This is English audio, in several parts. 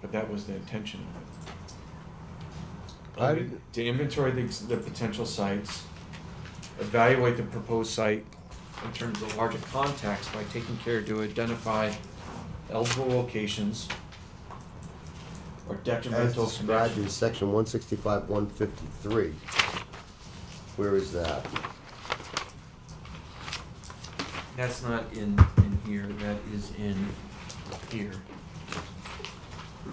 but that was the intention of it. I- I mean, To inventory the, ex- the potential sites, evaluate the proposed site in terms of larger context by taking care to identify eligible locations or As detrimental described in connections. section one sixty-five, one fifty-three. Where is that? That's not in, in here, that is in here.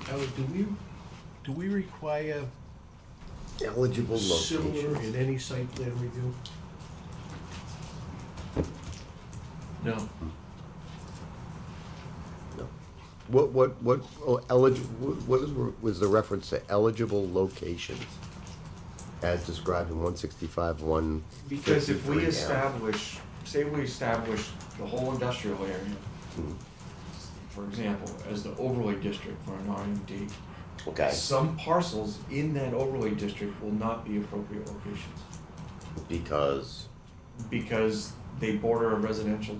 Howard, do we, do we require Eligible similar locations. in any site plan review? No, No. What, what, what, oh, eligible, what is, was the reference to eligible locations? As described in one sixty-five, one fifty-three. because if we establish, say we establish the whole industrial area, for example, as the overlay district for an RMD, Okay, Some parcels in that overlay district will not be appropriate locations because, because they border a residential,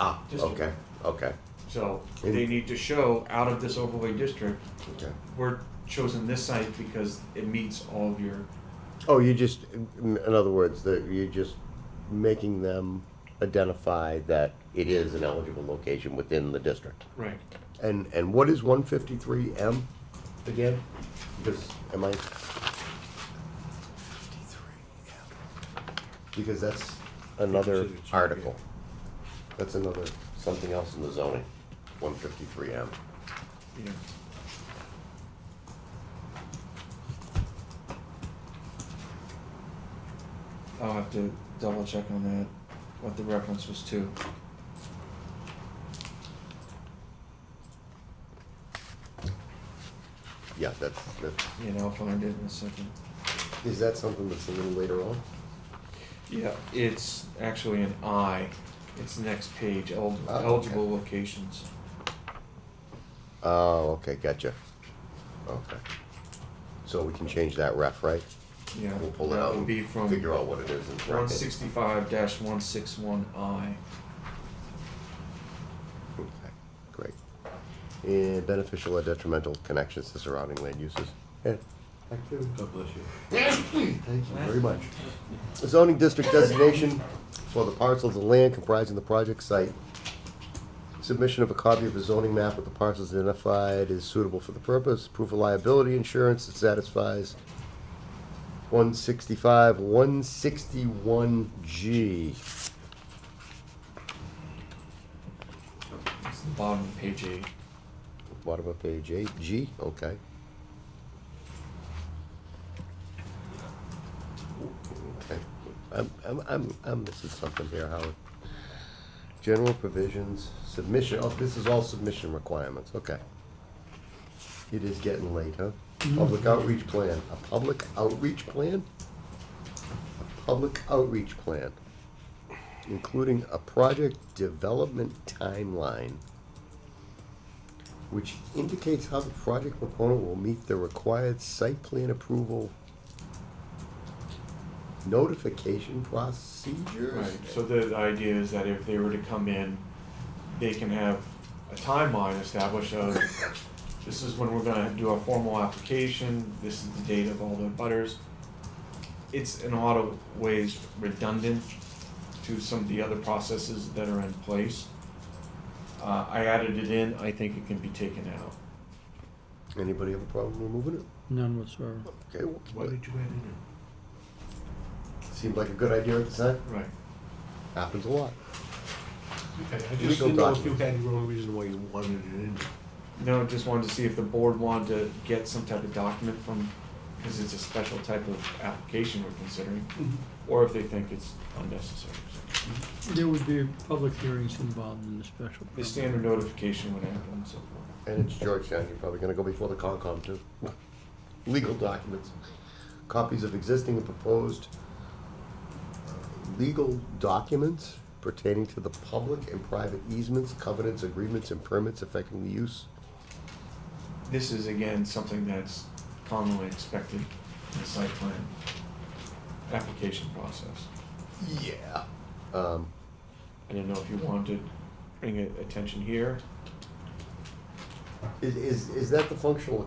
ah, Just- okay, okay, so they need to show out of this overlay district, okay. we're chosen this site because it meets all of your, Oh, you just, in in other words, that you're just making them identify that it is an eligible location within the district. right, And, and what is one fifty-three M again? Because, am I? Because that's another article. That's another, something else in the zoning, one fifty-three M. you know. I'll have to double check on that, what the reference was to. Yeah, that's, that's, Yeah, I'll find it in a second. is that something that's a little later on? Yeah, it's actually an I. It's the next page, el- Oh, okay. eligible locations. Oh, okay, gotcha. Okay. So we can change that ref, right? Yeah, We'll pull it that out will and be from figure out what it is and one correct it. sixty-five one six one I. Okay, Great. And beneficial or detrimental connections to surrounding land uses. Yeah. God bless you. Thank you very much. Zoning district designation for the parcels of land comprising the project site. Submission of a copy of a zoning map with the parcels identified is suitable for the purpose. Proof of liability insurance that satisfies one sixty-five, one sixty-one G. It's the bottom of page eight. Bottom of page eight, G, okay. Okay, I'm, I'm, I'm, I'm missing something here, Howard. General provisions, submission, oh, this is all submission requirements, okay. It is getting late, huh? Public outreach plan, a public outreach plan? A public outreach plan, including a project development timeline which indicates how the project proponent will meet the required site plan approval notification procedures. Right, so the idea is that if they were to come in, they can have a timeline established of, this is when we're gonna do our formal application, this is the date of all the butters. It's in a lot of ways redundant to some of the other processes that are in place. Uh, I added it in, I think it can be taken out. Anybody have a problem removing it? None whatsoever. Okay, we'll keep Why it. did you add it in? seemed like a good idea at the time. Right. Happens a lot. Okay, I just Legal didn't know if you document. had your own reason why you wanted it in. No, just wanted to see if the board wanted to get some type of document from, because it's a special type of application we're considering. or if they think it's unnecessary. so. There would be public hearings involved in the special. The permit. standard notification would happen and so forth. And it's Georgetown, you're probably gonna go before the Concom too. Legal documents, copies of existing and proposed uh, legal documents pertaining to the public and private easements, covenants, agreements, and permits affecting the use This is again something that's commonly expected in the site plan application process. Yeah. Um, I didn't know if you wanted to bring it attention here Is, is, is that the functional